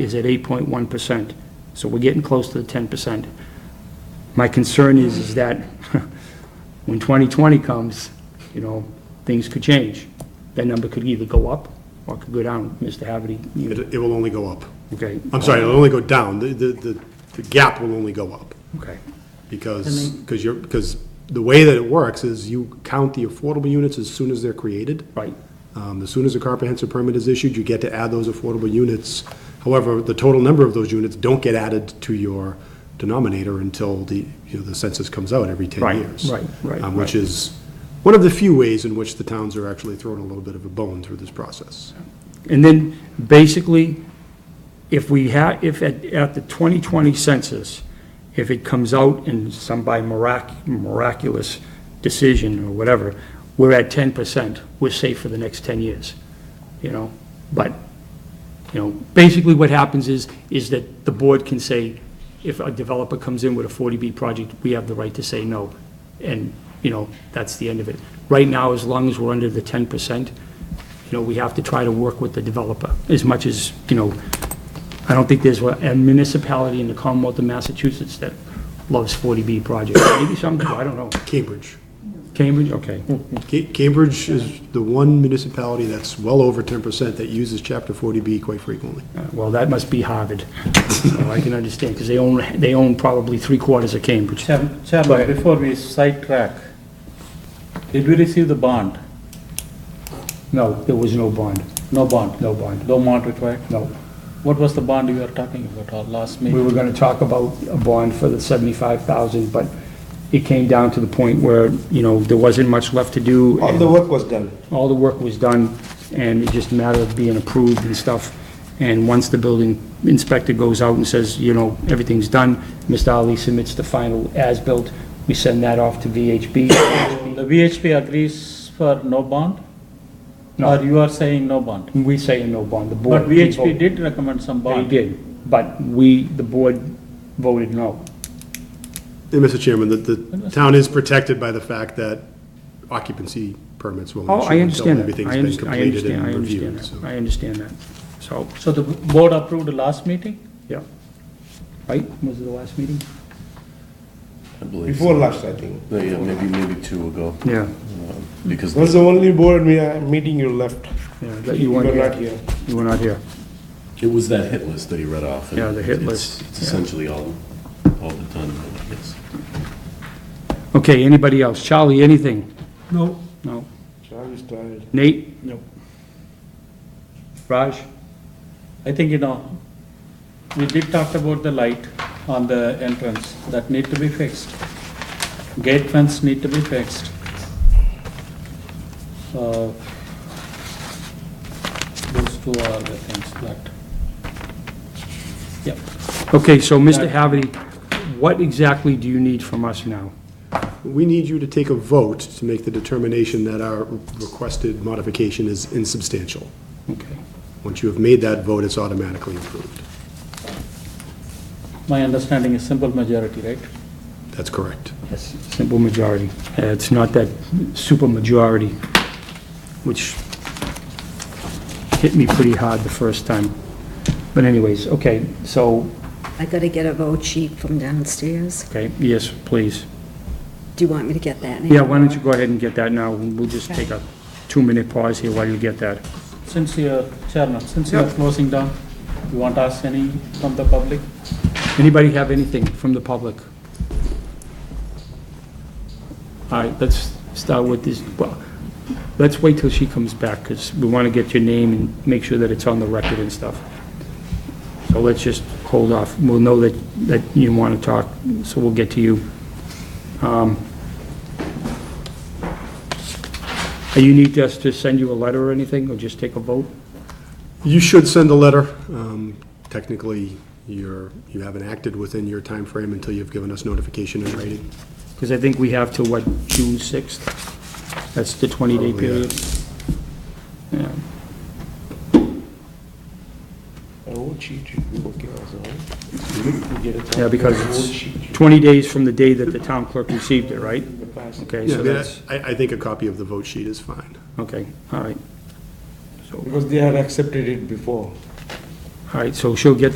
is at 8.1%. So we're getting close to the 10%. My concern is, is that when 2020 comes, you know, things could change. That number could either go up or could go down, Mr. Haverty. It, you- it will only go up. Okay? I'm sorry, it'll only go down. The, the, the- the gap will only go up Okay. because, because you're, because the way that it works is you count the affordable units as soon as they're created. Right. Um, as soon as a comprehensive permit is issued, you get to add those affordable units. However, the total number of those units don't get added to your denominator until the, you know, the census comes out every Right, ten years. right, right, Um, Which right. is one of the few ways in which the towns are actually throwing a little bit of a bone through this process. And then, basically, if we have, if at, at the 2020 census, if it comes out in some by mirac- miraculous decision or whatever, we're at 10%, we're safe for the next 10 years, you know? But, you know, basically what happens is, is that the board can say, if a developer comes in with a 40B project, we have the right to say no. And, you know, that's the end of it. Right now, as long as we're under the 10%, you know, we have to try to work with the developer as much as, you know, I don't think there's a municipality in the Commonwealth of Massachusetts that loves 40B projects. Maybe some do, I don't know. Cambridge. Cambridge, okay. Ca- Cambridge is the one municipality that's well over ten percent that uses chapter forty B quite frequently. Well, that must be Harvard. So I can understand, because they own, they own probably three quarters of Cambridge. Chairman, Go ahead. Chairman, before we sidetrack, did we receive the bond? No, there was no bond, No bond? no bond, No bond required? no. What was the bond you were talking about uh, last We meeting? were gonna talk about a bond for the seventy-five thousand, but it came down to the point where, you know, there wasn't much left to do. All and- the work was done. all the work was done, and it's just a matter of being approved and stuff. And once the building inspector goes out and says, you know, everything's done, Mr. Ali submits the final as-built, we send that off to VHB. The VHP agrees for no bond? No. Or you are saying no bond? We say no bond, the board. But VHP did recommend some They bond. did, but we, the board voted no. And Mr. Chairman, the, the town is protected by the fact that occupancy permits will Oh, not I issue understand until that. everything's I been understand, I completed understand, I and understand reviewed. that. so. I understand that. So, So the board approved the last meeting? yeah. Right, was it the last meeting? I believe. Before last, I think. No, Yeah, maybe, maybe two ago, Yeah, because That was the only board me- uh, meeting you left. yeah, that you weren't were not here. here. You were not here. it was that hit list that he read off. and Yeah, the hit it's- list, It's yeah. essentially all, all but done, I guess. Okay, anybody else? Charlie, anything? No. No. Charlie's tired. Nate? No. Raj? I think, you know, we did talk about the light on the entrance, that need to be fixed. Gate fence need to be fixed. Uh, Those two are the things that, yeah. Okay, so Mr. Haverty, what exactly do you need from us now? We need you to take a vote to make the determination that our requested modification is insubstantial. Okay. Once you have made that vote, it's automatically approved. My understanding is simple majority, right? That's correct. Yes, simple majority. Uh, It's not that super majority, which hit me pretty hard the first time. But anyways, okay, so, I gotta get a vote sheet from downstairs. okay, yes, please. Do you want me to get that now? Yeah, why don't you go ahead and get that now? We'll just take a two-minute pause here while you get that. Since you're, Chairman, since you're closing down, you want to ask any from the public? Anybody have anything from the public? All right, let's start with this, well, let's wait till she comes back, because we want to get your name and make sure that it's on the record and stuff. So let's just hold off. We'll know that, that you want to talk, so we'll get to you. Um, You need us to send you a letter or anything, or just take a vote? You should send a letter. Um, Technically, you're, you haven't acted within your time frame until you've given us notification in writing. Because I think we have to, what, June 6th? That's the 20-day Probably, Oh, yeah. period. Yeah. A vote sheet should be okay also. You get it. Yeah, because A it's vote sheet should 20 days from the day that the town clerk received it, right? be passed. Okay, Yeah, I so mean, that's, I, I think a copy of the vote sheet is fine. okay, all right. So, Because they had accepted it before. All right, so she'll get